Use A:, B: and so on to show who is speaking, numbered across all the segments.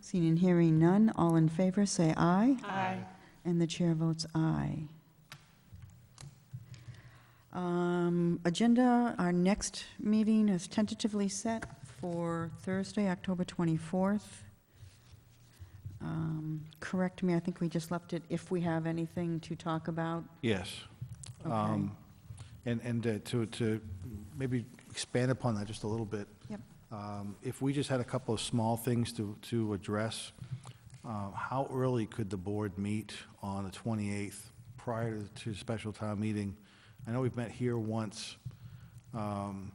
A: Seeing and hearing none, all in favor, say aye. And the chair votes aye. Um, Agenda, our next meeting is tentatively set for Thursday, October 24th. Um, Correct me, I think we just left it if we have anything to talk about.
B: Yes.
A: Okay.
B: Um, And, and uh, to, to maybe expand upon that just a little bit.
A: Yep.
B: um, If we just had a couple of small things to, to address, uh, how early could the board meet on the 28th prior to- to special town meeting? I know we've met here once um,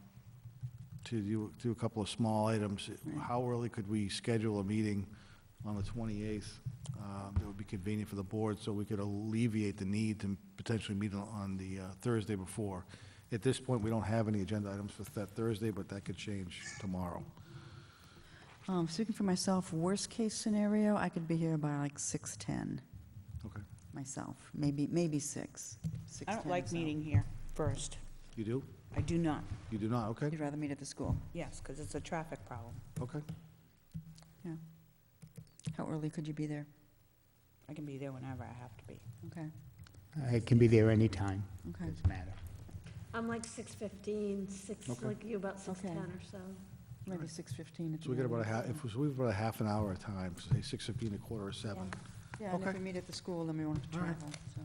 B: to do, do a couple of small items. How early could we schedule a meeting on the 28th um, that would be convenient for the board, so we could alleviate the need to potentially meet on- on the uh, Thursday before? At this point, we don't have any agenda items for that Thursday, but that could change tomorrow.
A: Um, Speaking for myself, worst-case scenario, I could be here by like 6:10
B: Okay.
A: myself, maybe, maybe 6.
C: I
A: 6:10
C: don't like
A: myself.
C: meeting here first.
B: You do?
C: I do not,
B: You do not? Okay,
A: You'd rather meet at the school?
C: yes, because it's a traffic problem.
B: okay.
A: Yeah. How early could you be there?
C: I can be there whenever I have to be.
A: Okay,
D: It can be there anytime,
A: okay.
D: doesn't matter.
E: I'm like 6:15, 6,
B: Okay.
E: like you about 6:10
A: Okay.
E: or so.
A: Maybe 6:15. at
B: So we got
A: the
B: about a half,
A: earliest.
B: if we have about a half an hour of time, say 6:15, a quarter or
E: Yeah.
B: seven.
A: Yeah, and if
B: okay.
A: we meet at the school, then we won't have to
B: All right.
A: travel, so.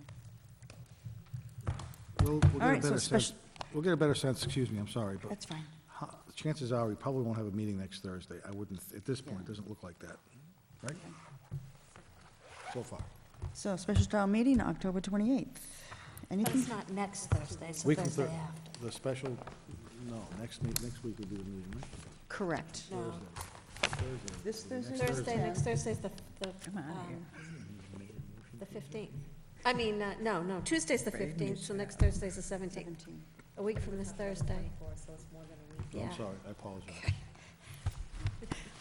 B: We'll,
A: All
B: we'll get a
A: right, so
B: better sense,
A: spec-
B: we'll get a better sense, excuse me, I'm sorry, but
A: That's fine.
B: ho- chances are, we probably won't have a meeting next Thursday. I wouldn't, at this point, it
A: Yeah.
B: doesn't look like that, right? So far.
A: So special town meeting, October 28th.
E: But
A: Anything?
E: it's not next Thursday, it's the
B: Week from
E: Thursday
B: Thur-
E: after.
B: The special, no, next meet, next week would be the meeting, right?
A: Correct.
E: No,
A: This Thursday?
E: Thursday, next Thursday's the, the,
A: I'm outta
E: um,
A: here.
E: the 15th. I mean, uh, no, no, Tuesday's the 15th, so next Thursday's the 17th,
A: 17th.
E: a week from this Thursday.
B: I'm
E: Yeah,
B: sorry, I apologize.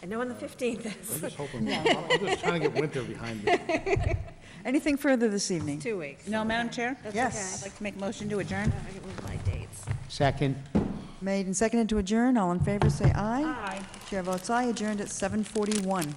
E: I know when the 15th is,
B: I'm just hoping, I'm just trying to get winter behind me.
A: Anything further this evening?
E: two weeks.
C: No, Madam Chair?
E: That's
A: Yes.
C: I'd
E: okay.
C: like to make a motion to adjourn.
E: I can move my dates.
D: Second?
A: Made and seconded to adjourn, all in favor, say aye.
E: Aye.
A: Chair votes aye, adjourned at 7:41.